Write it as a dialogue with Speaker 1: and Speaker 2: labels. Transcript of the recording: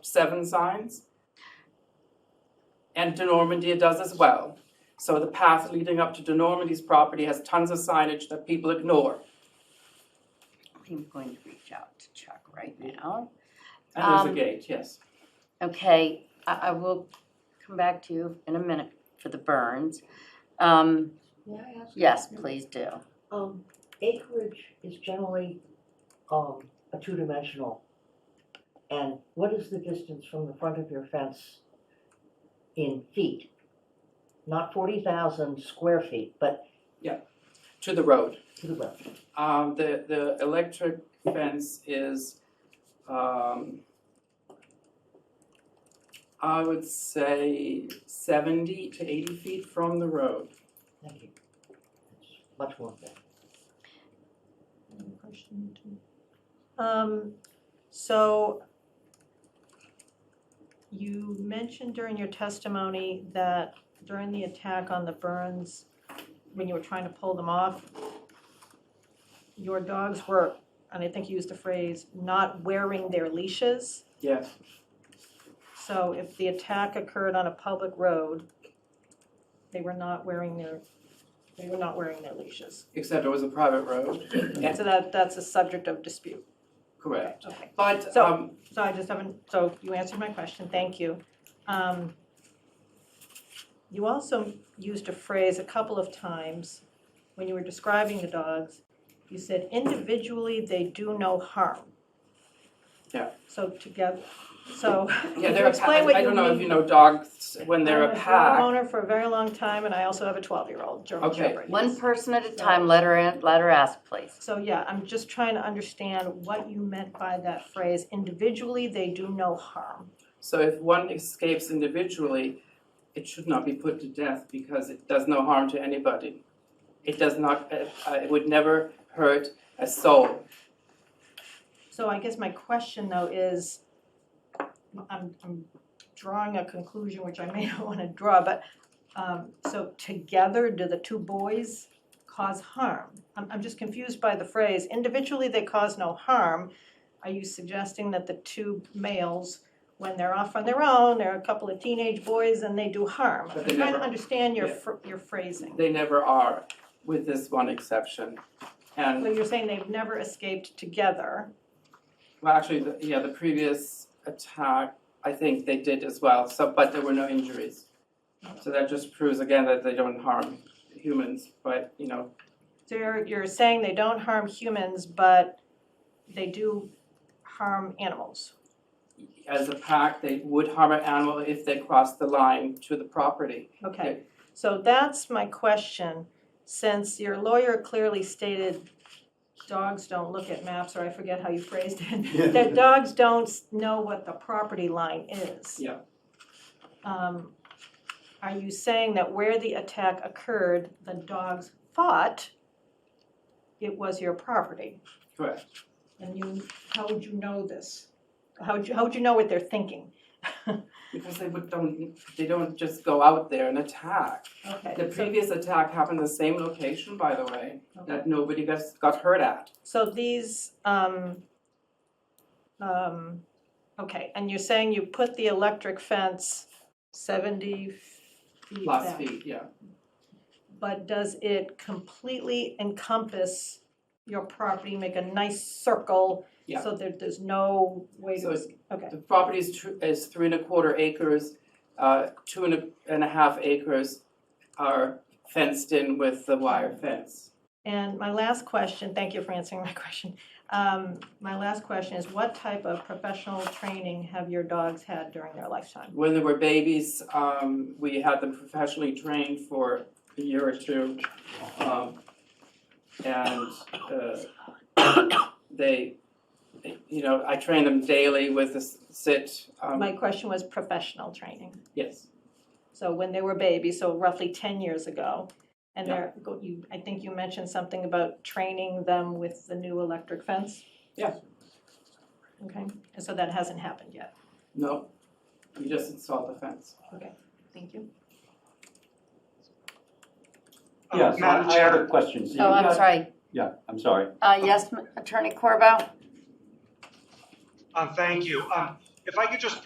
Speaker 1: seven signs. And De Normandy does as well. So the path leading up to De Normandy's property has tons of signage that people ignore.
Speaker 2: I'm going to reach out to Chuck right now.
Speaker 1: And there's a
Speaker 2: Um,
Speaker 1: gate, yes.
Speaker 2: Okay, I, I will come back to you in a minute for the burns. Um,
Speaker 3: May I ask?
Speaker 2: yes, please do.
Speaker 3: Um, acreage is generally, um, a two-dimensional. And what is the distance from the front of your fence in feet? Not forty thousand square feet, but
Speaker 1: To the road.
Speaker 3: to the left.
Speaker 1: Um, the, the electric fence is, um, I would say seventy to eighty feet from the road.
Speaker 3: Thank you. It's Much more than.
Speaker 4: Um, so you mentioned during your testimony that during the attack on the Burns, when you were trying to pull them off, your dogs were, and I think you used the phrase, not wearing their leashes.
Speaker 1: Yes,
Speaker 4: So if the attack occurred on a public road, they were not wearing their, they were not wearing their leashes.
Speaker 1: except it was a private road. Yeah.
Speaker 4: So that, that's a subject of dispute.
Speaker 1: Correct.
Speaker 4: Okay.
Speaker 1: But,
Speaker 4: So-
Speaker 1: um,
Speaker 4: So I just haven't, so you answered my question, thank you. Um, You also used a phrase a couple of times when you were describing the dogs. You said individually, they do no harm.
Speaker 1: Yeah.
Speaker 4: So together, so can
Speaker 1: yeah,
Speaker 4: you
Speaker 1: they're, a pa-
Speaker 4: explain what
Speaker 1: I I
Speaker 4: you
Speaker 1: don't know if
Speaker 4: mean?
Speaker 1: you know dogs, when they're a
Speaker 4: I was a
Speaker 1: pack,
Speaker 4: dog owner for a very long time, and I also have a twelve-year-old German
Speaker 1: Okay.
Speaker 4: Shepherd.
Speaker 2: One person at a time, let her in, let her ask, please.
Speaker 4: So yeah, I'm just trying to understand what you meant by that phrase, individually, they do no harm.
Speaker 1: So if one escapes individually, it should not be put to death because it does no harm to anybody. It does not, uh, uh, it would never hurt a soul.
Speaker 4: So I guess my question though is, I'm, I'm drawing a conclusion which I may not wanna draw, but, um, so together, do the two boys cause harm? I'm, I'm just confused by the phrase, individually they cause no harm. Are you suggesting that the two males, when they're off on their own, they're a couple of teenage boys and they do harm?
Speaker 1: But
Speaker 4: I'm
Speaker 1: they
Speaker 4: trying to
Speaker 1: never-
Speaker 4: understand your,
Speaker 1: yeah.
Speaker 4: phr- your phrasing.
Speaker 1: They never are, with this one exception.
Speaker 4: So
Speaker 1: And,
Speaker 4: you're saying they've never escaped together?
Speaker 1: well, actually, the- yeah, the previous attack, I think they did as well, so, but there were no injuries. So that just proves again that they don't harm humans, but, you know,
Speaker 4: So you're, you're saying they don't harm humans, but they do harm animals.
Speaker 1: as a pack, they would harm an animal if they crossed the line to the property.
Speaker 4: Okay, so that's my question. Since your lawyer clearly stated dogs don't look at maps, or I forget how you phrased it, that dogs don't s- know what the property line is.
Speaker 1: Yeah.
Speaker 4: Um, Are you saying that where the attack occurred, the dogs thought it was your property?
Speaker 1: Correct.
Speaker 4: And you, how would you know this? How would you, how would you know what they're thinking?
Speaker 1: Because they would don't, they don't just go out there and attack.
Speaker 4: Okay,
Speaker 1: The
Speaker 4: so-
Speaker 1: previous attack happened the same location, by the way,
Speaker 4: okay.
Speaker 1: that nobody got, got hurt at.
Speaker 4: So these, um, um, okay, and you're saying you put the electric fence seventy feet
Speaker 1: Plus
Speaker 4: back.
Speaker 1: feet, yeah.
Speaker 4: But does it completely encompass your property, make a nice circle?
Speaker 1: Yeah.
Speaker 4: So that there's no way
Speaker 1: So
Speaker 4: to,
Speaker 1: it's-
Speaker 4: okay,
Speaker 1: The property is tr- is three and a quarter acres, uh, two and a, and a half acres are fenced in with the wire fence.
Speaker 4: and my last question, thank you for answering my question. Um, my last question is what type of professional training have your dogs had during their lifetime?
Speaker 1: When they were babies, um, we had them professionally trained for a year or two. Um, and, uh, they, you know, I trained them daily with the sit,
Speaker 4: My
Speaker 1: um,
Speaker 4: question was professional training.
Speaker 1: yes,
Speaker 4: So when they were babies, so roughly ten years ago, and they're, go- you, I think you mentioned something about training them with the new electric fence?
Speaker 1: Yeah.
Speaker 4: Okay, and so that hasn't happened yet.
Speaker 1: no, we just installed the fence.
Speaker 4: Thank you.
Speaker 5: Uh,
Speaker 6: Yes, I
Speaker 5: Madam
Speaker 6: I have
Speaker 5: Chair,
Speaker 6: a question. So
Speaker 2: Oh,
Speaker 6: you
Speaker 2: I'm
Speaker 6: got-
Speaker 2: sorry.
Speaker 6: Yeah, I'm sorry.
Speaker 2: Uh, yes, Attorney Corbo?
Speaker 5: um, thank you. Um, If I could just